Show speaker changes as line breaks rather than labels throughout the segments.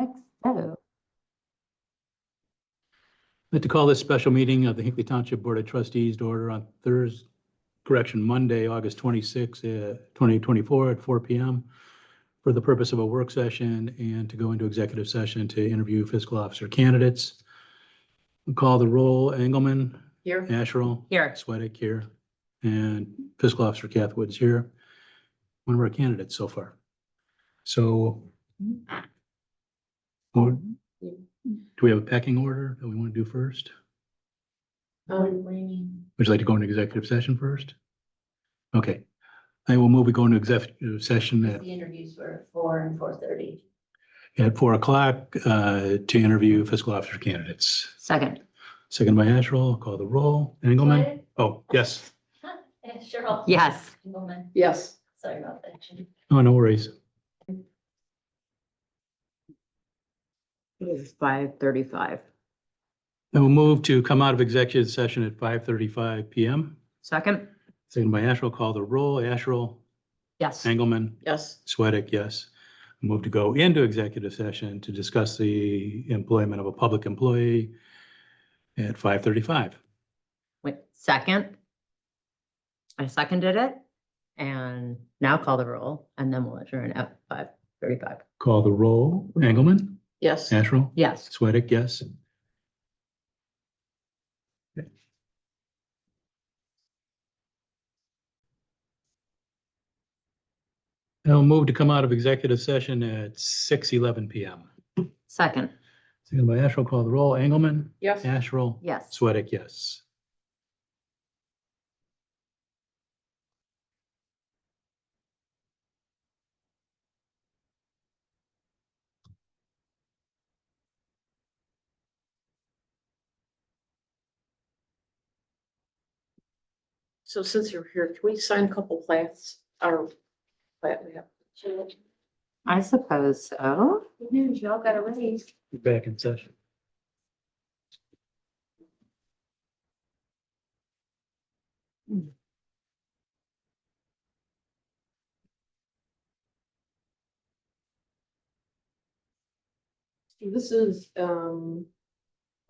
Oh,
I'd like to call this special meeting of the Hinkley Township Board of Trustees to order on Thursday, correction, Monday, August 26, uh, 2024 at 4 PM for the purpose of a work session and to go into executive session to interview fiscal officer candidates. We'll Call the roll, Engelmann,
here.
Asherle,
Here.
Sweattick here, and fiscal officer Kath Woods here. One of our candidates so far. So or- do we have a pecking order that we want to do first?
Oh,
Would you like to go into executive session first? Okay, I will move, we go into executive session at,
The interviews were four and four thirty.
at four o'clock, uh, to interview fiscal officer candidates.
Second.
Second by Asherle, call the roll, Engelmann, oh, yes,
Cheryl.
Yes.
Engelmann.
Yes.
Sorry about that. Jen.
oh, no worries.
It is five thirty-five.
I will move to come out of executive session at five thirty-five PM.
Second?
Second by Asherle, call the roll, Asherle,
Yes.
Engelmann,
Yes.
Sweattick, yes. Move to go into executive session to discuss the employment of a public employee at five thirty-five.
Wait, second? I seconded it and now call the roll and then we'll adjourn at five thirty-five.
Call the roll. Engelmann,
Yes.
Asherle,
Yes.
Sweattick, yes. I'll move to come out of executive session at six eleven PM.
Second?
Second by Asherle, call the roll. Engelmann,
Yes.
Asherle,
Yes.
Sweattick, yes.
So since you're here, can we sign a couple plats or plat we have?
Cheryl,
I suppose so.
Good news, y'all got a raise.
Back in session.
This is um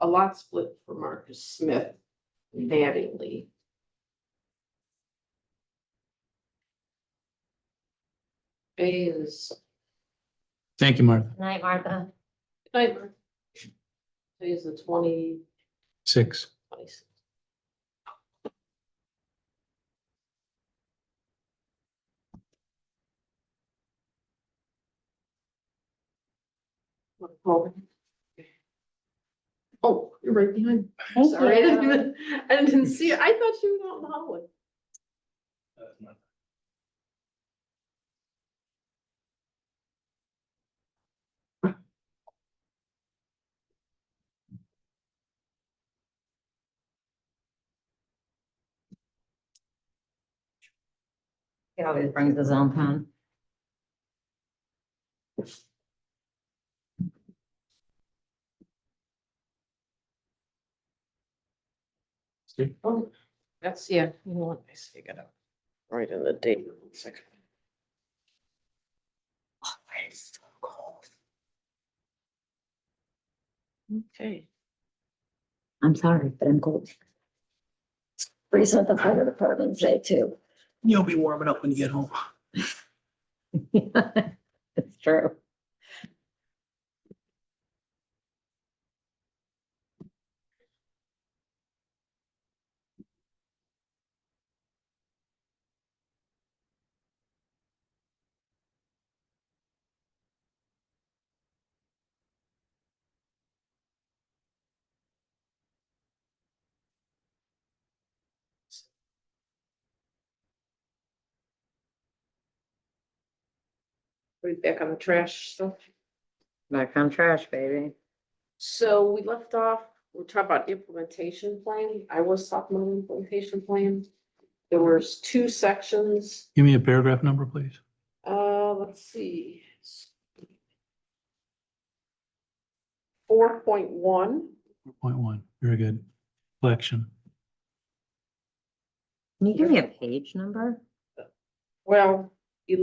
a lot split for Marcus Smith, Mattingly. A is.
Thank you, Martha.
Good Night, Martha.
Hi, Mark. Today is the twenty,
Six.
twenty. Oh, you're right behind. Sorry, I didn't, even- I didn't see it. I thought she was out in the hallway.
He always brings his own pen.
Oh, That's, yeah, you know what, I see, I got it. Right in the date. One second. Oh, it's so cold. Okay.
I'm sorry, but I'm cold.
Freeze with the fire department today too.
You'll be warming up when you get home.
It's true.
Put it back on the trash stuff.
Back on trash, baby.
So we left off, we're talking about implementation plan. I was talking about implementation plan. There was two sections.
Give me a paragraph number, please.
Uh, let's see. Four point one.
Point one, very good. Collection.
Can you give me a page number?
Well,